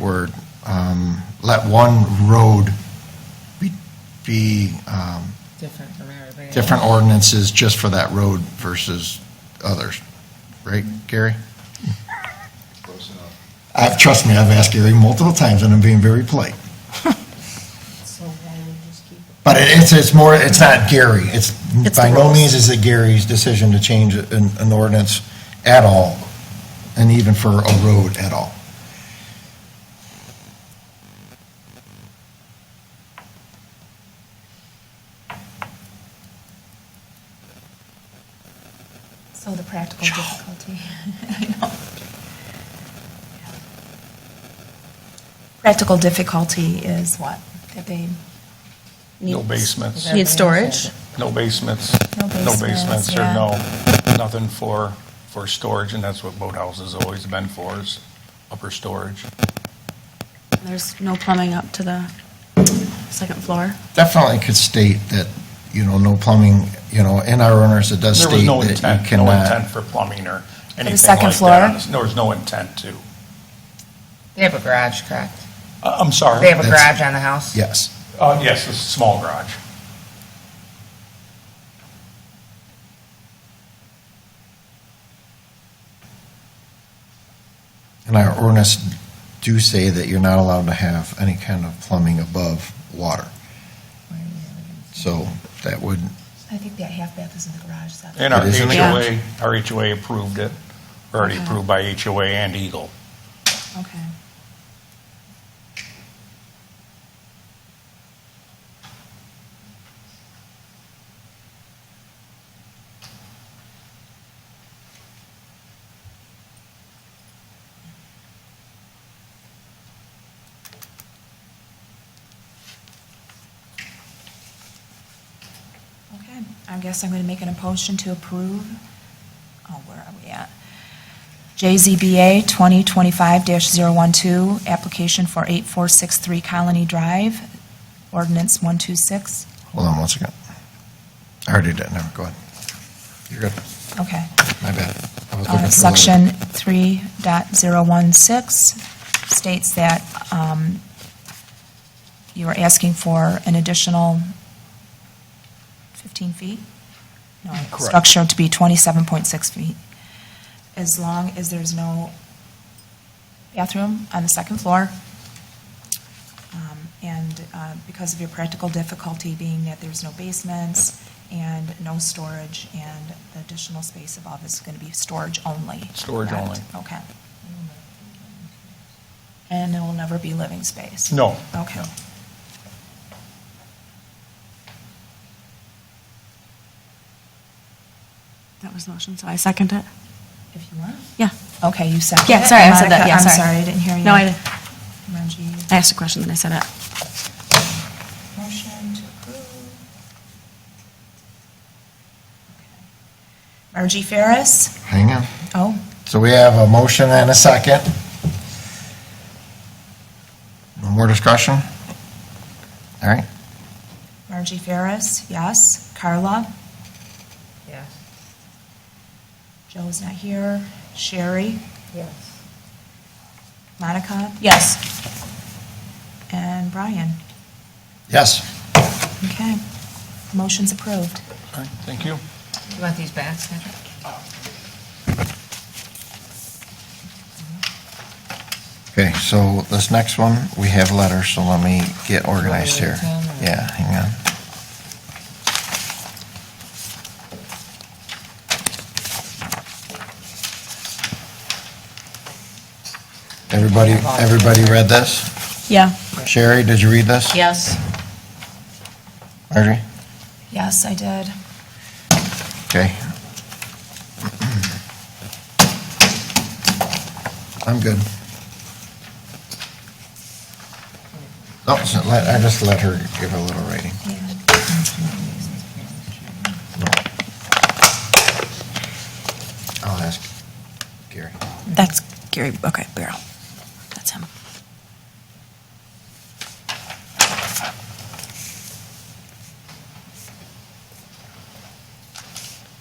word, um, let one road be, be, um, different from everything. different ordinances just for that road versus others, right, Gary? Close enough. Uh, trust me, I've asked Gary multiple times, and I'm being very polite. So why would we just keep it? But it- it's, it's more, it's not Gary, it's, It's by the no rules. means is it Gary's decision to change an, an ordinance at all, and even for a road at all. So the practical difficulty. I know. Practical difficulty is what? That they need. No basements, Yeah. Need storage? no basements, No no basements, basements, or yeah. no, nothing for, for storage, and that's what boathouse has always been for, is upper storage. There's no plumbing up to the second floor. Definitely could state that, you know, no plumbing, you know, in our ordinance, it does There state was no that you cannot. intent, no intent for plumbing or anything second like that. floor? There was no intent to. They have a garage, correct? I- Uh, I'm sorry. They have a That's- garage on the house? Yes. Uh, yes, it's a small garage. And our ordinance do say that you're not allowed to have any kind of plumbing above water. So that would, I think that half bath is in the garage, is that? And our It is in the HOA, our HOA approved it, already Okay. approved by HOA and Eagle. Okay. Okay, I guess I'm going to make an motion to approve, oh, where are we at? JZBA 2025-012, application for 8463 Colony Drive, ordinance 126. hold on one second. I already did, never, go ahead. You're good, Okay. my bad. I was Uh, looking for the- Section 3.016 states that um, you are asking for an additional 15 feet? No, structure to be 27.6 feet, as long as there's no bathroom on the second floor. Um, And uh, because of your practical difficulty being that there's no basements and no storage, and the additional space above is going to be storage only. Storage correct? only. Okay. And there will never be living space? No. Okay. That was the motion, so I second it. If you want. Yeah. Okay, you second Yeah, it. sorry, I Monica, said that, yeah, I'm sorry. sorry, I didn't hear you. No, I didn't. Margie. I asked a question, then I said it. Motion to approve. Margie Ferris? Hang on. Oh, So we have a motion and a second. No more discussion? All right, Margie Ferris, yes. Carla? Yes. Joe's not here. Sherry? Yes. Monica? Yes. And Brian? yes. Okay. Motion's approved. All right, thank you. You want these back, Sandra? Okay, so this next one, we have letters, so let me get organized here. Yeah, hang on. Everybody, everybody read this? Yeah. Sherry, did you read this? Yes. Marjorie? Yes, I did. Okay. I'm good. No, Oh, so let- I just let her give a little rating. Yeah. I'll ask Gary. That's Gary, okay, Barrow. That's him.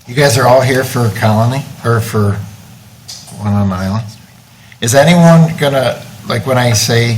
You guys are all here for Colony, or for One on Island? Is anyone gonna, like, when I say